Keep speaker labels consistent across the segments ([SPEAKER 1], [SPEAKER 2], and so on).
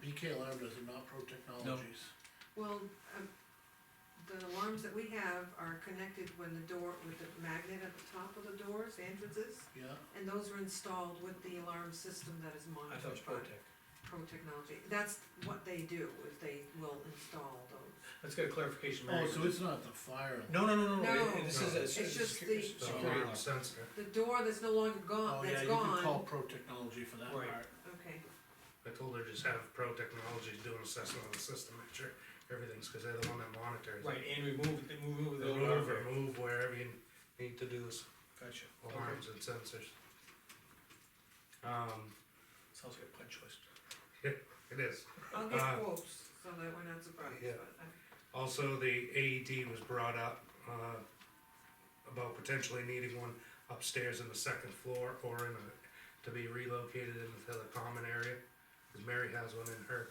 [SPEAKER 1] BK Um, Alarm does not Pro Technologies.
[SPEAKER 2] Well, um, the alarms that we have are connected when the door, with the magnet at the top of the doors, the entrances,
[SPEAKER 1] Yeah,
[SPEAKER 2] and those are installed with the alarm system that is
[SPEAKER 3] I thought it
[SPEAKER 2] monitored
[SPEAKER 3] was
[SPEAKER 2] by
[SPEAKER 3] Protec.
[SPEAKER 2] Pro Technology. That's what they do, is they will install those.
[SPEAKER 3] Let's get a clarification,
[SPEAKER 1] oh,
[SPEAKER 3] Mary.
[SPEAKER 1] so it's not the fire.
[SPEAKER 3] No, no, no, no, no,
[SPEAKER 2] No.
[SPEAKER 3] it- this is a.
[SPEAKER 4] No.
[SPEAKER 2] It's just the-
[SPEAKER 3] secu-
[SPEAKER 4] So,
[SPEAKER 3] security alarm.
[SPEAKER 4] sensitive.
[SPEAKER 2] The door that's no longer
[SPEAKER 1] Oh,
[SPEAKER 2] gone,
[SPEAKER 1] yeah,
[SPEAKER 2] that's
[SPEAKER 1] you can call
[SPEAKER 2] gone,
[SPEAKER 1] Pro Technology for that
[SPEAKER 3] Right.
[SPEAKER 1] part.
[SPEAKER 2] okay,
[SPEAKER 4] I told her just have Pro Technologies do an assessment on the system, make sure everything's, cause they're the one that monitors. it.
[SPEAKER 3] Right, and remove, they move the alarm.
[SPEAKER 4] Remove, remove wherever you need to do s-
[SPEAKER 3] Gotcha, okay,
[SPEAKER 4] alarms and sensors. Um,
[SPEAKER 3] sounds like a punch list.
[SPEAKER 4] it is,
[SPEAKER 2] I'll get
[SPEAKER 4] Uh,
[SPEAKER 2] quotes, so that we're not surprised,
[SPEAKER 4] yeah.
[SPEAKER 2] but I-
[SPEAKER 4] also the AED was brought up, uh, about potentially needing one upstairs in the second floor or in a, to be relocated into the common area. Cause Mary has one in her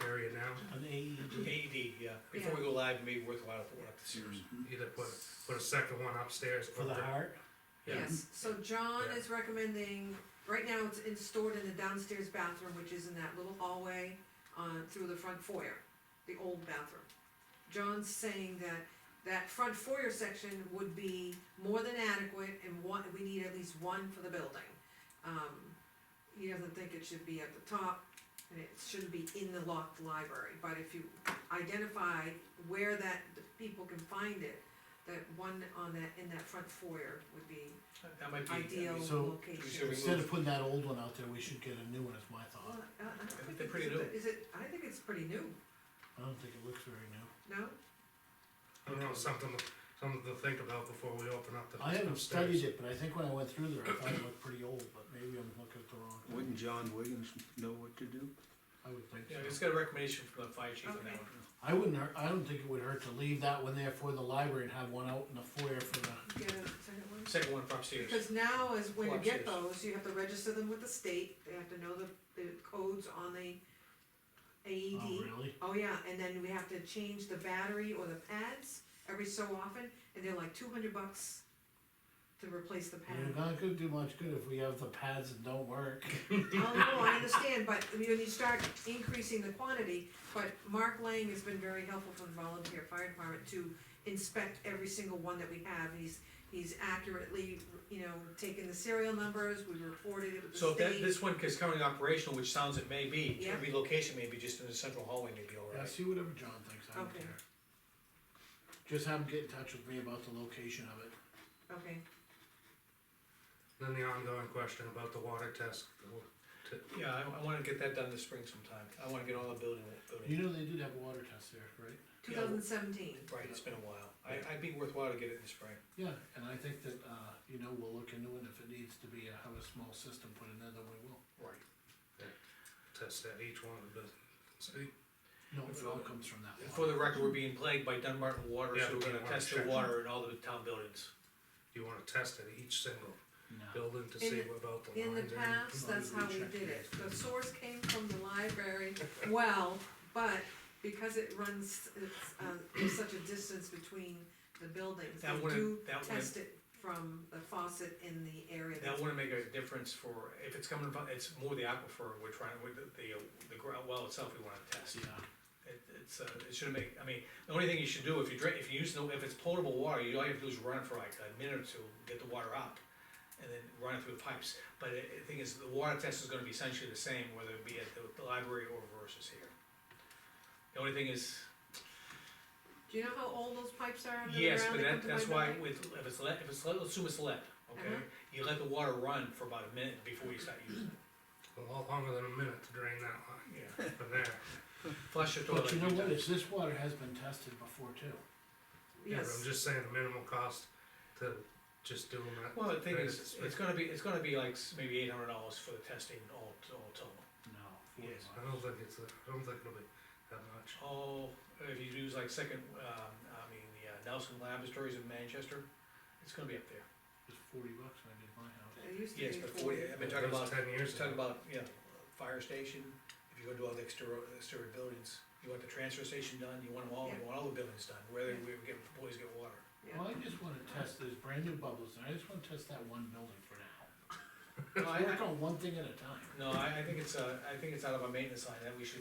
[SPEAKER 4] area now.
[SPEAKER 1] An AED.
[SPEAKER 2] E
[SPEAKER 3] AED, E yeah, before we go live, it may be worthwhile if we're up the stairs.
[SPEAKER 4] Either put, put a second one upstairs.
[SPEAKER 1] For the
[SPEAKER 4] or-
[SPEAKER 1] heart,
[SPEAKER 3] Yeah.
[SPEAKER 2] Yes, so John
[SPEAKER 4] Yeah.
[SPEAKER 2] is recommending, right now it's in, stored in the downstairs bathroom, which is in that little hallway, uh, through the front foyer, the old bathroom. John's saying that that front foyer section would be more than adequate and one, we need at least one for the building. Um, he doesn't think it should be at the top and it shouldn't be in the locked library, but if you identify where that, the people can find it, that one on that, in that front foyer would be
[SPEAKER 3] That might be.
[SPEAKER 2] ideal
[SPEAKER 1] so-
[SPEAKER 2] location.
[SPEAKER 3] we
[SPEAKER 1] instead
[SPEAKER 3] move-
[SPEAKER 1] of putting that old one out there, we should get a new one, is my
[SPEAKER 2] Well,
[SPEAKER 1] thought.
[SPEAKER 2] I- I don't
[SPEAKER 3] think
[SPEAKER 2] think
[SPEAKER 3] they're
[SPEAKER 2] it's-
[SPEAKER 3] pretty new.
[SPEAKER 2] Is it, I think it's pretty new,
[SPEAKER 1] I don't think it looks very new.
[SPEAKER 2] no?
[SPEAKER 4] I don't know, something, something to think about before we open up the.
[SPEAKER 1] I haven't
[SPEAKER 4] upstairs.
[SPEAKER 1] studied it, but I think when I went through there, I thought it looked pretty old, but maybe I'm looking at the wrong thing.
[SPEAKER 5] Wouldn't John Williams know what to do?
[SPEAKER 1] I would think
[SPEAKER 3] Yeah, it's
[SPEAKER 1] so.
[SPEAKER 3] got a recommendation from the fire chief on
[SPEAKER 2] Okay.
[SPEAKER 3] that one.
[SPEAKER 1] I wouldn't hurt, I don't think it would hurt to leave that one there for the library and have one out in the foyer for the,
[SPEAKER 2] You get a second one?
[SPEAKER 3] Second one from upstairs,
[SPEAKER 2] Because now is when you
[SPEAKER 3] Watch
[SPEAKER 2] get
[SPEAKER 3] this.
[SPEAKER 2] those, you have to register them with the state, they have to know the, the codes on the
[SPEAKER 3] E
[SPEAKER 1] oh,
[SPEAKER 2] AED.
[SPEAKER 1] really?
[SPEAKER 2] Oh, yeah, and then we have to change the battery or the pads every so often, and they're like two hundred bucks to replace the pad.
[SPEAKER 1] You're not gonna do much good if we have the pads that don't work.
[SPEAKER 2] Oh, no, I understand, but when you start increasing the quantity, but Mark Lang has been very helpful for the volunteer fire department to inspect every single one that we have, he's, he's accurately, you know, taken the serial numbers, we reported it with the
[SPEAKER 3] so if that,
[SPEAKER 2] state.
[SPEAKER 3] this one is currently operational, which sounds it may be,
[SPEAKER 2] Yeah.
[SPEAKER 3] relocation may be just in the central hallway may be all
[SPEAKER 1] Yeah,
[SPEAKER 3] right.
[SPEAKER 1] see whatever John thinks, I don't
[SPEAKER 2] Okay.
[SPEAKER 1] care. Just have him get in touch with me about the location of it.
[SPEAKER 2] Okay,
[SPEAKER 4] Then the ongoing question about the water test,
[SPEAKER 3] Yeah, I, I wanna get that done this spring sometime, I wanna get all the building, building,
[SPEAKER 1] You know, they did have a water test there, right?
[SPEAKER 2] two thousand seventeen,
[SPEAKER 3] right, it's been a while, I, I'd be worthwhile to get it in the spring.
[SPEAKER 1] Yeah, and I think that, uh, you know, we'll look into it, if it needs to be, uh, have a small system put in there, then we will.
[SPEAKER 3] Right.
[SPEAKER 4] test at each one of the, see,
[SPEAKER 1] No, it all comes from that
[SPEAKER 3] For
[SPEAKER 1] water.
[SPEAKER 3] the record, we're being plagued by Dunbarton water, so
[SPEAKER 4] Yeah,
[SPEAKER 3] we're gonna
[SPEAKER 4] Dunbarton
[SPEAKER 3] test the water in
[SPEAKER 4] water.
[SPEAKER 3] all the town buildings.
[SPEAKER 4] you wanna test at each single
[SPEAKER 1] No,
[SPEAKER 4] building to
[SPEAKER 2] In
[SPEAKER 4] see
[SPEAKER 2] the-
[SPEAKER 4] about the
[SPEAKER 2] in the
[SPEAKER 4] lines. or anything.
[SPEAKER 2] past, that's how we did it, the source came from the library, well, but because it runs, it's, uh, there's such a distance between the buildings,
[SPEAKER 3] That
[SPEAKER 2] we do
[SPEAKER 3] wouldn't, that wouldn't,
[SPEAKER 2] test it from the faucet in the area.
[SPEAKER 3] that
[SPEAKER 2] that's-
[SPEAKER 3] wouldn't make a difference for, if it's coming from, it's more the aquifer we're trying, with the, the, uh, the ground well itself we wanna test.
[SPEAKER 1] yeah,
[SPEAKER 3] It, it's, uh, it shouldn't make, I mean, the only thing you should do, if you drink, if you use, no- if it's potable water, you all you have to do is run it for like a minute or two, get the water out. And then run it through the pipes, but the the thing is, the water test is gonna be essentially the same, whether it be at the library or versus here. The only thing is,
[SPEAKER 2] Do you know how old those pipes are under the ground?
[SPEAKER 3] Yes, but
[SPEAKER 2] that
[SPEAKER 3] that,
[SPEAKER 2] come to
[SPEAKER 3] that's
[SPEAKER 2] my
[SPEAKER 3] why
[SPEAKER 2] building?
[SPEAKER 3] with, if it's lead, if it's lead, let's assume it's lead, okay?
[SPEAKER 2] Uh-huh.
[SPEAKER 3] You let the water run for about a minute before you start using
[SPEAKER 4] A lot longer than a minute to drain that line
[SPEAKER 3] it, yeah.
[SPEAKER 4] from there.
[SPEAKER 3] Flush your toilet.
[SPEAKER 1] but you
[SPEAKER 3] a few
[SPEAKER 1] know what, is
[SPEAKER 3] times.
[SPEAKER 1] this water has been tested before too.
[SPEAKER 4] Yeah, but I'm
[SPEAKER 2] Yes,
[SPEAKER 4] just saying the minimal cost to just do them at.
[SPEAKER 3] Well, the thing
[SPEAKER 4] Right,
[SPEAKER 3] is,
[SPEAKER 4] it's-
[SPEAKER 3] it's gonna be, it's gonna be like s- maybe eight hundred dollars for the testing all, all total.
[SPEAKER 1] No.
[SPEAKER 3] Yes.
[SPEAKER 4] I don't think it's, I don't think it'll be that much.
[SPEAKER 3] Oh, if you use like second, um, I mean, the uh, Nelson Laboratories in Manchester, it's gonna be up there.
[SPEAKER 1] It's forty bucks when I did my house.
[SPEAKER 2] it used to be.
[SPEAKER 3] Yes, but forty, I've been talking
[SPEAKER 4] That
[SPEAKER 3] about,
[SPEAKER 4] was Ten years
[SPEAKER 3] just talking
[SPEAKER 4] ago.
[SPEAKER 3] about, you know, fire station, if you go to all the exterior, exterior buildings, you want the transfer station done, you want them all, you want all the buildings done, where they, where we get, boys get water.
[SPEAKER 2] Yeah.
[SPEAKER 1] Well, I just wanna test, there's brand new bubbles, and I just wanna test that one building for now.
[SPEAKER 3] No, I,
[SPEAKER 1] Work on one thing at a time.
[SPEAKER 3] no, I, I think it's, uh, I think it's out of our maintenance line that we should